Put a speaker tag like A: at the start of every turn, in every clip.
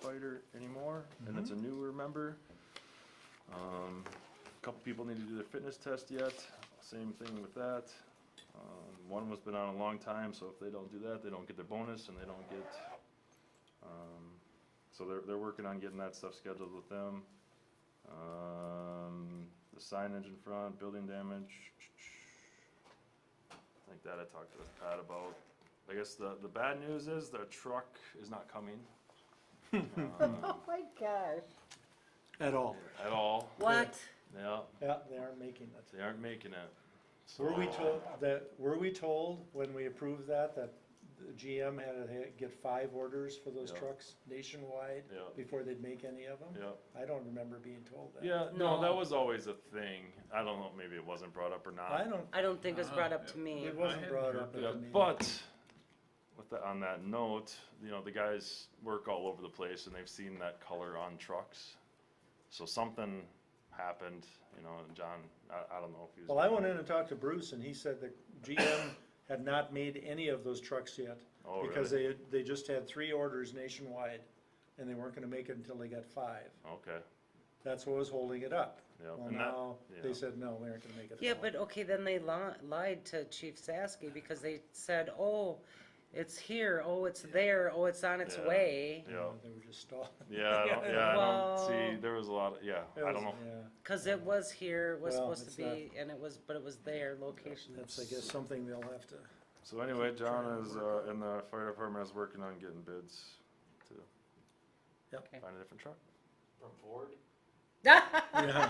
A: firefighter anymore, and it's a newer member. Um, couple people need to do their fitness test yet, same thing with that. Um, one was been on a long time, so if they don't do that, they don't get their bonus and they don't get, um, so they're, they're working on getting that stuff scheduled with them. Um, the signage in front, building damage. I think that I talked to Pat about. I guess the, the bad news is the truck is not coming. um,
B: Oh my gosh.
C: At all.
A: At all,
B: What?
A: yeah,
C: Yeah, they aren't making it.
A: they aren't making it.
C: Were we
A: So-
C: told, that, were we told when we approved that, that the GM had to ha- get five orders for those
A: Yeah.
C: trucks nationwide
A: Yeah.
C: before they'd make any of them?
A: Yeah,
C: I don't remember being told that.
A: yeah, no, that
B: No.
A: was always a thing. I don't know, maybe it wasn't brought up or not.
C: I don't,
B: I don't think it was brought up to me.
C: it wasn't brought up at
A: Yeah,
C: the meeting.
A: but with the, on that note, you know, the guys work all over the place and they've seen that color on trucks. So something happened, you know, and John, I, I don't know if he was.
C: Well, I went in and talked to Bruce and he said that GM had not made any of those trucks yet.
A: Oh,
C: Because they, had- they just had three orders nationwide and they weren't gonna make it until they got five.
A: Okay,
C: That's what was holding it up.
A: Yeah,
C: Well,
A: and that-
C: now,
A: yeah.
C: they said, no, we aren't gonna make it. at
D: Yeah,
C: all."
D: but okay, then they li- lied to Chief Saski because they said, oh, it's here, oh, it's there, oh, it's on its
A: Yeah.
D: way.
A: yeah,
C: They were just stalled.
A: yeah, I don't, yeah, I don't, see,
D: Well-
A: there was a lot, of- yeah, I don't know.
D: Cause it was here, it was
C: Well,
D: supposed to be,
C: it's
D: and it was, but it was there, location.
C: That's, I guess, something they'll have to,
A: So anyway,
C: trying
A: John
C: to
A: is, uh, in the fire department is working on getting bids to
C: Yep.
D: Okay.
A: find a different truck.
E: From Ford?
C: yeah,
E: That's where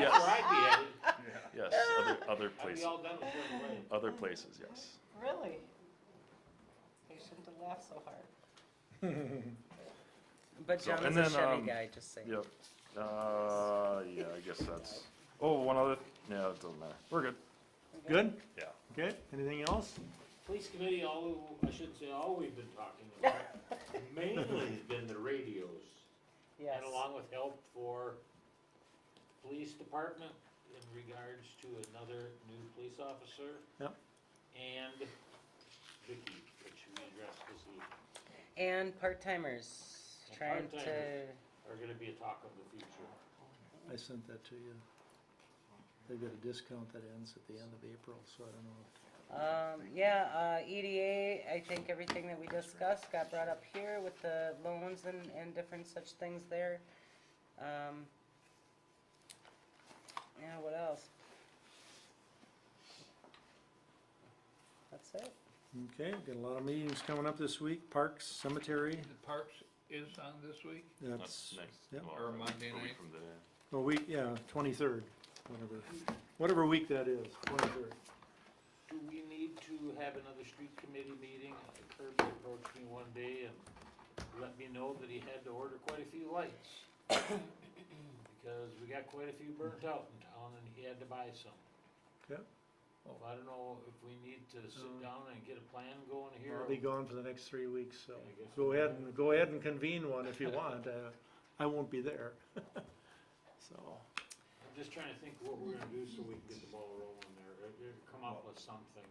E: I'd be headed.
A: Yes,
C: Ah!
A: other, other
E: I'd be
A: places,
E: all done with Ford already.
A: other places, yes.
B: Really? I shouldn't have laughed so hard.
D: But
A: So- and
D: John is
A: then,
D: a Chevy
A: um,
D: guy, just saying.
A: Yep. Uh, yeah, I guess that's, oh, one other, yeah, it doesn't matter. We're good.
C: good,
A: Yeah.
C: okay, anything else?
E: Police committee, all, I shouldn't say all we've been talking about, mainly has been the radios.
B: Yes.
E: And along with help for police department in regards to another new police officer.
C: Yep.
E: And Vicky, which we addressed this evening,
D: And part-timers,
E: And
D: trying to,
E: part-timers. are gonna be a talk of the future.
C: I sent that to you. They've got a discount that ends at the end of April, so I don't know.
D: um, yeah, uh, EDA, I think everything that we discussed got brought up here with the loans and, and different such things there. Um, yeah, what else? That's it.
C: Okay, got a lot of meetings coming up this week, Parks, Cemetery,
F: The Parks is on this week?
C: that's, yeah,
A: well,
F: Or
A: a
F: Monday
A: week
F: night.
A: from today.
C: a week, yeah, twenty-third, whatever, whatever week that is, twenty-third.
E: Do we need to have another street committee meeting? Uh, Kirby approached me one day and let me know that he had to order quite a few lights. Because we got quite a few burnt out in town and he had to buy some.
C: Yep.
E: Well, I don't know if we need to sit down and get a plan going here.
C: I'll be gone for the next three weeks, so
E: I guess-
C: go ahead and, go ahead and convene one if you want, uh, I won't be there. So,
E: I'm just trying to think what we're gonna do so we can get the ball rolling there, or- or come up with something.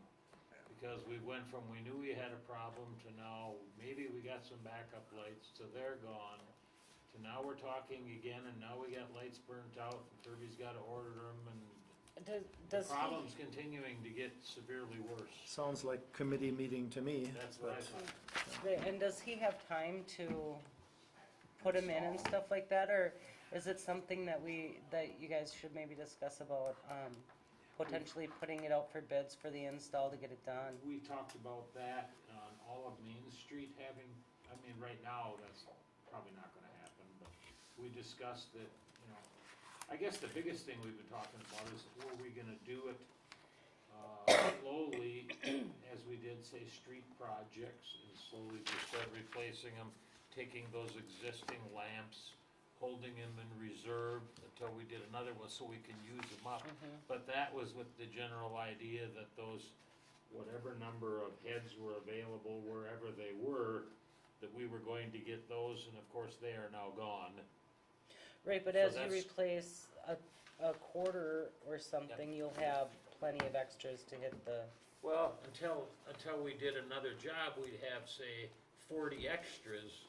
E: Because we went from, we knew we had a problem to now, maybe we got some backup lights, to they're gone. To now we're talking again and now we got lights burnt out and Kirby's gotta order them and
D: Does,
E: the
D: does he?
E: problem's continuing to get severely worse.
C: sounds like committee meeting to me.
E: That's what I
C: but-
E: thought.
D: The- And does he have time to put him in and stuff like that, or is it something that we, that you guys should maybe discuss about, um, potentially putting it out for bids for the install to get it done?
E: We talked about that on all of Main Street having, I mean, right now, that's probably not gonna happen, but we discussed that, you know, I guess the biggest thing we've been talking about is were we gonna do it, uh, slowly, as we did, say, street projects, and slowly just start replacing them, taking those existing lamps, holding them in reserve until we did another one, so we can use them up. But that was with the general idea that those, whatever number of heads were available wherever they were, that we were going to get those, and of course, they are now gone.
D: Right, but
E: So
D: as you
E: that's-
D: replace a, a quarter or something, you'll have plenty of extras to hit the,
E: Well, until, until we did another job, we'd have, say, forty extras